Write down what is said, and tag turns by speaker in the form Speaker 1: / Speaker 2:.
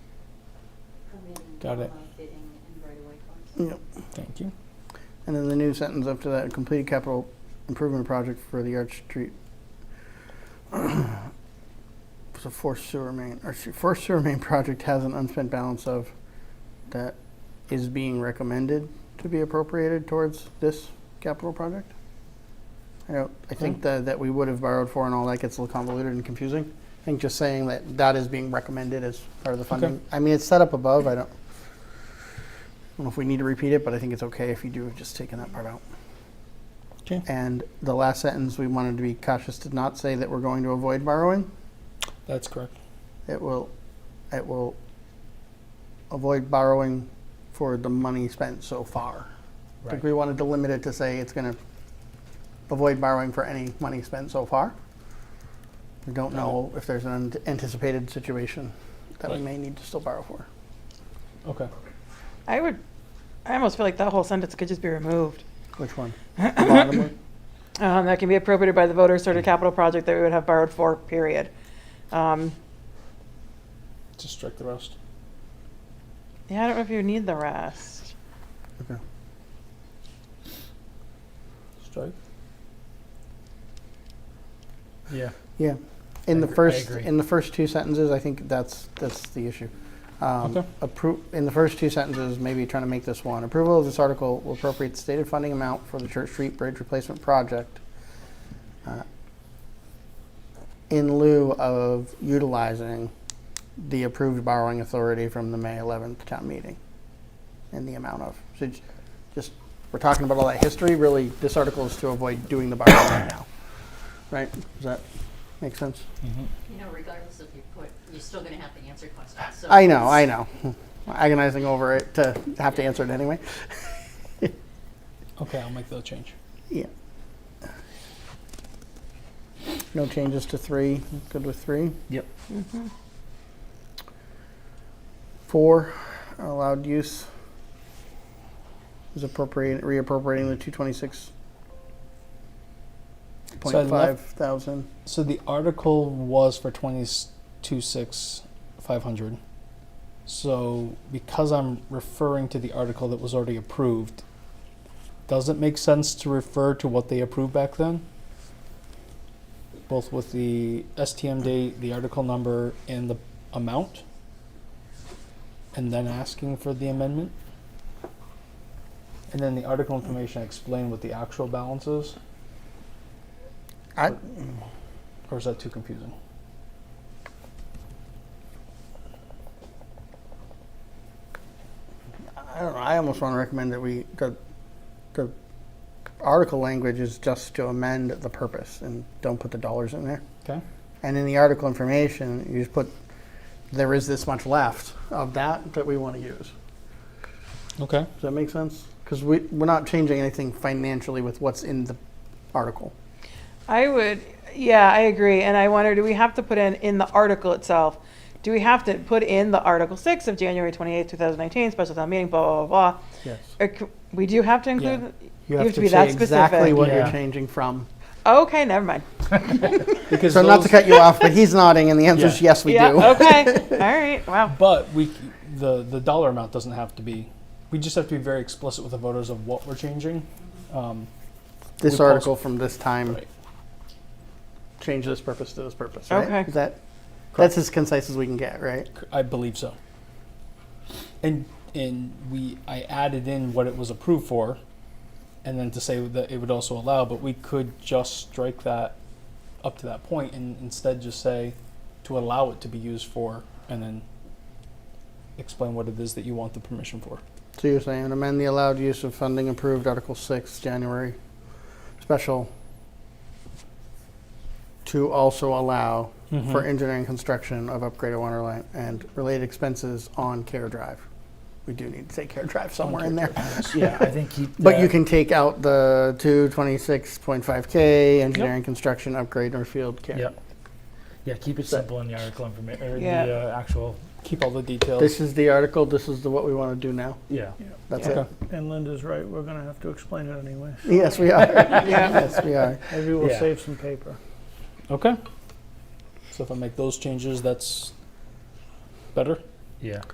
Speaker 1: Got it.
Speaker 2: Fitting and right-of-way costs.
Speaker 3: Yep.
Speaker 1: Thank you.
Speaker 3: And then the new sentence after that, complete capital improvement project for the Arch Street. So forced sewer main, or se- forced sewer main project has an unspent balance of that is being recommended to be appropriated towards this capital project? I don't, I think that, that we would have borrowed for and all that gets a little convoluted and confusing. I think just saying that that is being recommended as part of the funding. I mean, it's set up above, I don't, I don't know if we need to repeat it, but I think it's okay if you do, just taking that part out.
Speaker 1: Okay.
Speaker 3: And the last sentence, we wanted to be cautious to not say that we're going to avoid borrowing.
Speaker 1: That's correct.
Speaker 3: It will, it will avoid borrowing for the money spent so far. I think
Speaker 1: Right.
Speaker 3: we wanted to limit it to say it's gonna avoid borrowing for any money spent so far. We don't know if there's an anticipated situation that we
Speaker 1: Right.
Speaker 3: may need to still borrow for.
Speaker 1: Okay.
Speaker 4: I would, I almost feel like that whole sentence could just be removed.
Speaker 3: Which one? The bottom one?
Speaker 4: Um, that can be appropriated by the voters
Speaker 3: Mm.
Speaker 4: toward a capital project that we would have borrowed for, period. Um,
Speaker 1: Just strike the rest.
Speaker 4: yeah, I don't know if you need the rest.
Speaker 3: Okay.
Speaker 1: Strike. Yeah.
Speaker 3: Yeah, in the
Speaker 1: I agree- I
Speaker 3: first,
Speaker 1: agree.
Speaker 3: in the first two sentences, I think that's, that's the issue. Um,
Speaker 1: Okay.
Speaker 3: appro, in the first two sentences, maybe trying to make this one, approval of this article will appropriate the stated funding amount for the Church Street Bridge Replacement Project uh, in lieu of utilizing the approved borrowing authority from the May eleventh town meeting in the amount of, so j- just, we're talking about all that history, really, this article is to avoid doing the borrowing right now. Right, does that make sense?
Speaker 1: Mm-hmm.
Speaker 2: You know, regardless of your put, you're still gonna have to answer questions, so.
Speaker 3: I know, I
Speaker 2: it's-
Speaker 3: know. Agonizing over it to have to answer it anyway.
Speaker 1: Okay, I'll make that change.
Speaker 3: Yeah. No changes to three. Good with three.
Speaker 1: Yep.
Speaker 3: Four, allowed use is appropriate, reappropriating the two twenty-six
Speaker 1: So I
Speaker 3: point five
Speaker 1: left-
Speaker 3: thousand.
Speaker 1: So the article was for twenty-two six five hundred. So because I'm referring to the article that was already approved, does it make sense to refer to what they approved back then? Both with the STM date, the article number, and the amount? And then asking for the amendment? And then the article information, explain what the actual balance is?
Speaker 3: I,
Speaker 1: Or is that too confusing?
Speaker 3: I don't know. I almost want to recommend that we the the article language is just to amend the purpose and don't put the dollars in there.
Speaker 1: Okay.
Speaker 3: And in the article information, you just put there is this much left of that that we want to use.
Speaker 1: Okay.
Speaker 3: Does that make sense? Because we we're not changing anything financially with what's in the article.
Speaker 4: I would, yeah, I agree. And I wonder, do we have to put in, in the article itself? Do we have to put in the Article six of January twenty-eighth, two thousand nineteen, special town meeting, blah, blah, blah,
Speaker 3: Yes.
Speaker 4: blah? Uh, c- We do have to include, you have to be
Speaker 3: say
Speaker 4: that
Speaker 3: exactly
Speaker 4: specific.
Speaker 3: what you're
Speaker 1: Yeah.
Speaker 3: changing from.
Speaker 4: Okay, never mind.
Speaker 1: Because
Speaker 3: So not to
Speaker 1: those-
Speaker 3: cut you off, but he's nodding, and the answer is
Speaker 1: Yeah.
Speaker 3: yes, we
Speaker 4: Yeah,
Speaker 3: do.
Speaker 4: okay, all right, wow.
Speaker 1: But we, c- the the dollar amount doesn't have to be. We just have to be very explicit with the voters of what we're changing. Um,
Speaker 3: This
Speaker 1: We post-
Speaker 3: article from this time.
Speaker 1: right.
Speaker 3: change this purpose to this purpose, right?
Speaker 4: Okay.
Speaker 3: Is that, that's as concise as we can get, right?
Speaker 1: C- I believe so. And and we I added in what it was approved for, and then to say that it would also allow. But we could just strike that up to that point, and instead just say to allow it to be used for, and then explain what it is that you want the permission for.
Speaker 3: So you're saying amend the allowed use of funding approved Article six, January special to also allow
Speaker 5: Mm-hmm.
Speaker 3: for engineering construction of upgraded water line and related expenses on Care Drive. We do need to say Care Drive somewhere in there.
Speaker 5: Yeah, I think he.
Speaker 3: But you
Speaker 5: that-
Speaker 3: can take out the two twenty-six point five K, engineering construction upgrade Northfield Care.
Speaker 5: Yep. Yeah, keep it simple in the article information, or
Speaker 4: Yeah.
Speaker 5: the uh, actual,
Speaker 1: Keep all the details.
Speaker 3: This is the article, this is the, what we want to do now.
Speaker 5: yeah.
Speaker 3: That's
Speaker 1: Okay.
Speaker 3: it.
Speaker 6: And Linda's right, we're gonna have to explain it anyway.
Speaker 3: Yes, we are.
Speaker 4: Yeah.
Speaker 3: Yes, we are.
Speaker 6: Maybe we'll
Speaker 5: Yeah.
Speaker 6: save some paper.
Speaker 1: Okay. So if I make those changes, that's better?
Speaker 5: Yeah.